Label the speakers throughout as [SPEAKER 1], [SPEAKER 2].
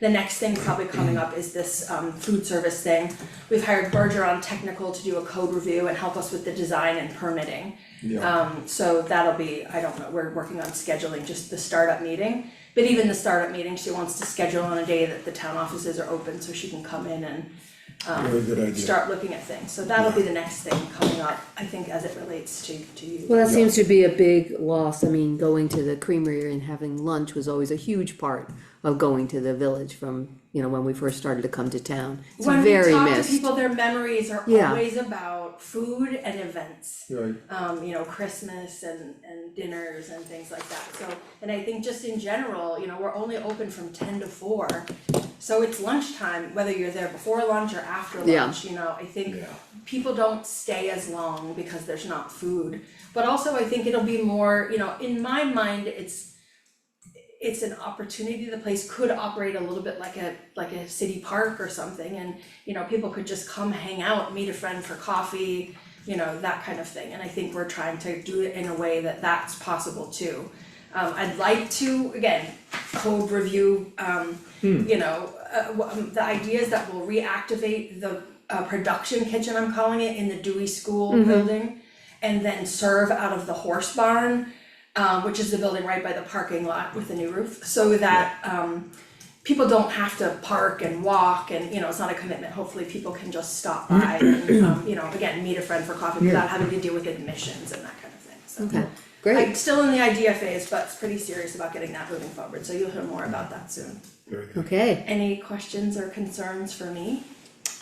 [SPEAKER 1] The next thing probably coming up is this um food service thing. We've hired Berger on technical to do a code review and help us with the design and permitting.
[SPEAKER 2] Yeah.
[SPEAKER 1] Um, so that'll be, I don't know, we're working on scheduling just the startup meeting. But even the startup meeting, she wants to schedule on a day that the town offices are open so she can come in and
[SPEAKER 2] Very good idea.
[SPEAKER 1] start looking at things. So that'll be the next thing coming up, I think, as it relates to to you.
[SPEAKER 3] Well, that seems to be a big loss. I mean, going to the creamery and having lunch was always a huge part of going to the village from, you know, when we first started to come to town. It's
[SPEAKER 1] When we
[SPEAKER 3] very
[SPEAKER 1] talk to
[SPEAKER 3] missed.
[SPEAKER 1] people, their memories are
[SPEAKER 3] Yeah.
[SPEAKER 1] always about food and events.
[SPEAKER 2] Right,
[SPEAKER 1] um, you know, Christmas and, and dinners and things like that, so, and I think just in general, you know, we're only open from ten to four. So it's lunchtime, whether you're there before lunch or after
[SPEAKER 3] Yeah.
[SPEAKER 1] lunch, you know, I think
[SPEAKER 2] Yeah.
[SPEAKER 1] people don't stay as long because there's not food. But also I think it'll be more, you know, in my mind, it's it's an opportunity, the place could operate a little bit like a like a city park or something and you know, people could just come hang out, meet a friend for coffee, you know, that kind of thing. And I think we're trying to do it in a way that that's possible too. Um, I'd like to, again, code review, um, you know, uh, wh- um, the idea is that we'll reactivate the uh, production kitchen, I'm calling it, in the Dewey School building. And then serve out of the horse barn, um, which is the building right by the parking lot with the new roof, so that, um, people don't have to park and walk and, you know, it's not a commitment, hopefully people can just stop by and, um, you know, again, meet a friend for coffee without having to deal with admissions and that kind of thing, so.
[SPEAKER 3] Okay,
[SPEAKER 1] I'm
[SPEAKER 3] great.
[SPEAKER 1] still in the idea phase, but it's pretty serious about getting that moving forward, so you'll hear more about that soon.
[SPEAKER 2] very good.
[SPEAKER 3] Okay,
[SPEAKER 1] Any questions or concerns for me?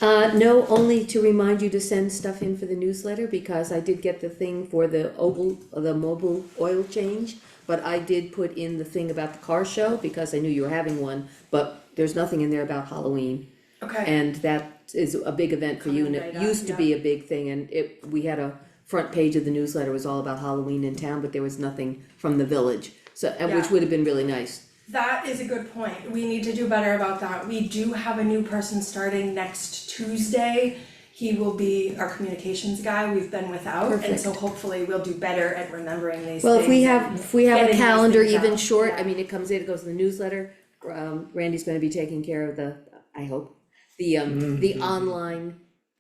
[SPEAKER 3] uh, no, only to remind you to send stuff in for the newsletter because I did get the thing for the oval, the mobile oil change. But I did put in the thing about the car show because I knew you were having one, but there's nothing in there about Halloween.
[SPEAKER 1] Okay,
[SPEAKER 3] And that is a big event for you, and it
[SPEAKER 1] Coming right up,
[SPEAKER 3] used to be a big thing, and it, we had a front page of the newsletter was all about Halloween in town, but there was nothing from the village. So, and which
[SPEAKER 1] Yeah.
[SPEAKER 3] would have been really nice,
[SPEAKER 1] that is a good point. We need to do better about that. We do have a new person starting next Tuesday. He will be our communications guy we've been without, and so hopefully we'll do better at remembering these things.
[SPEAKER 3] well, if we have, if we have a
[SPEAKER 1] Getting these
[SPEAKER 3] calendar
[SPEAKER 1] things
[SPEAKER 3] even
[SPEAKER 1] out,
[SPEAKER 3] short, I
[SPEAKER 1] yeah.
[SPEAKER 3] mean, it comes in, it goes in the newsletter. Um, Randy's gonna be taking care of the, I hope, the um, the online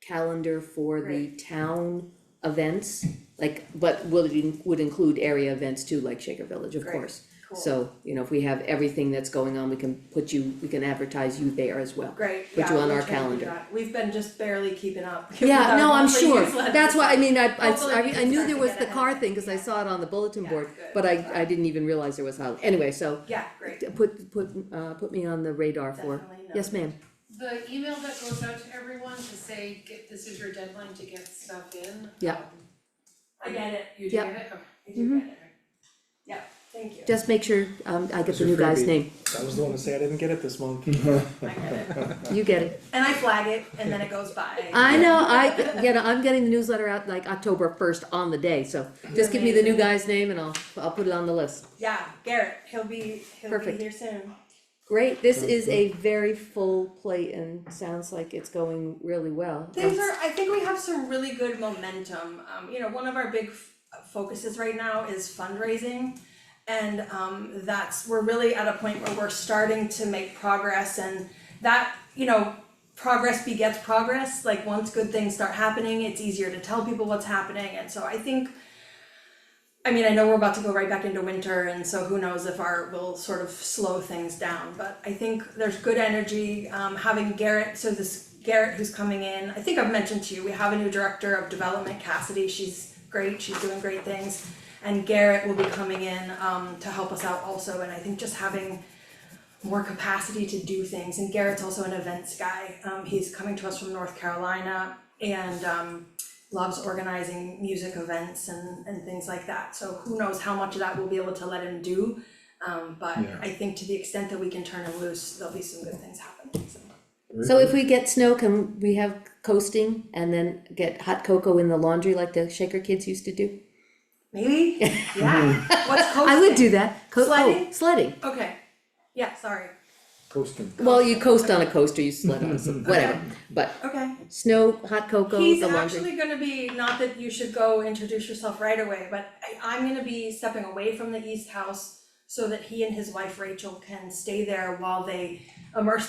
[SPEAKER 3] calendar for the
[SPEAKER 1] Great.
[SPEAKER 3] town events. Like, but would it in- would include area events too, like Shaker Village, of
[SPEAKER 1] Great.
[SPEAKER 3] course.
[SPEAKER 1] Cool.
[SPEAKER 3] So, you know, if we have everything that's going on, we can put you, we can advertise you there as well.
[SPEAKER 1] Great,
[SPEAKER 3] Put
[SPEAKER 1] yeah,
[SPEAKER 3] you on
[SPEAKER 1] we'll
[SPEAKER 3] our
[SPEAKER 1] try to do
[SPEAKER 3] calendar.
[SPEAKER 1] that. We've been just barely keeping up. with
[SPEAKER 3] Yeah,
[SPEAKER 1] our
[SPEAKER 3] no, I'm
[SPEAKER 1] monthly
[SPEAKER 3] sure,
[SPEAKER 1] newsletter.
[SPEAKER 3] that's why, I mean, I, I,
[SPEAKER 1] Hopefully we
[SPEAKER 3] I- I
[SPEAKER 1] can
[SPEAKER 3] knew
[SPEAKER 1] start
[SPEAKER 3] there
[SPEAKER 1] to
[SPEAKER 3] was
[SPEAKER 1] get
[SPEAKER 3] the
[SPEAKER 1] ahead
[SPEAKER 3] car
[SPEAKER 1] of it.
[SPEAKER 3] thing, cause I saw it on the bulletin
[SPEAKER 1] Yeah,
[SPEAKER 3] board,
[SPEAKER 1] good.
[SPEAKER 3] but I,
[SPEAKER 1] Sorry.
[SPEAKER 3] I didn't even realize there was Halloween, anyway, so.
[SPEAKER 1] Yeah, great.
[SPEAKER 3] Put, put, uh, put me on the radar for,
[SPEAKER 1] Definitely
[SPEAKER 3] yes, ma'am,
[SPEAKER 4] The email that goes out to everyone to say, get, this is your deadline to get stuff in.
[SPEAKER 3] Yeah.
[SPEAKER 4] um,
[SPEAKER 1] I get it,
[SPEAKER 4] You do
[SPEAKER 3] Yeah. Mm-hmm.
[SPEAKER 4] get it, okay.
[SPEAKER 1] I do get it. Yeah, thank you.
[SPEAKER 3] just make sure, um, I get the
[SPEAKER 5] Mr.
[SPEAKER 3] new guy's
[SPEAKER 5] Frisbee.
[SPEAKER 3] name,
[SPEAKER 5] I was the one to say I didn't get it this month.
[SPEAKER 2] Mm-hmm.
[SPEAKER 1] I get it.
[SPEAKER 3] you get it.
[SPEAKER 1] And I flag it and then it goes by.
[SPEAKER 3] I know, I, you know, I'm getting the newsletter out like October first on the day, so just give me the new
[SPEAKER 1] Amazing.
[SPEAKER 3] guy's name and I'll, I'll put it on the list.
[SPEAKER 1] Yeah, Garrett, he'll be, he'll be
[SPEAKER 3] Perfect.
[SPEAKER 1] here soon.
[SPEAKER 3] Great, this is a very full plate and sounds like it's going really well. Um,
[SPEAKER 1] Things are, I think we have some really good momentum. Um, you know, one of our big f- focuses right now is fundraising. And um, that's, we're really at a point where we're starting to make progress and that, you know, progress begets progress. Like once good things start happening, it's easier to tell people what's happening. And so I think I mean, I know we're about to go right back into winter, and so who knows if art will sort of slow things down. But I think there's good energy. Um, having Garrett, so this Garrett who's coming in, I think I've mentioned to you, we have a new director of development, Cassidy. She's great. She's doing great things, and Garrett will be coming in um, to help us out also. And I think just having more capacity to do things. And Garrett's also an events guy. Um, he's coming to us from North Carolina and um, loves organizing music events and, and things like that. So who knows how much of that we'll be able to let him do. Um, but
[SPEAKER 2] Yeah.
[SPEAKER 1] I think to the extent that we can turn him loose, there'll be some good things happening. So.
[SPEAKER 3] So if we get snow, can we have coasting and then get hot cocoa in the laundry like the Shaker kids used to do?
[SPEAKER 1] Maybe? Yeah. What's coasting?
[SPEAKER 3] I would do that, Co- oh,
[SPEAKER 1] Sledding?
[SPEAKER 3] sledding,
[SPEAKER 1] Okay. Yeah, sorry.
[SPEAKER 2] Coasting.
[SPEAKER 3] well, you coast on a coaster, you sled on some, whatever, but
[SPEAKER 1] Okay.
[SPEAKER 3] snow, hot cocoa,
[SPEAKER 1] He's
[SPEAKER 3] the laundry.
[SPEAKER 1] actually gonna be, not that you should go introduce yourself right away, but I, I'm gonna be stepping away from the East House so that he and his wife Rachel can stay there while they immerse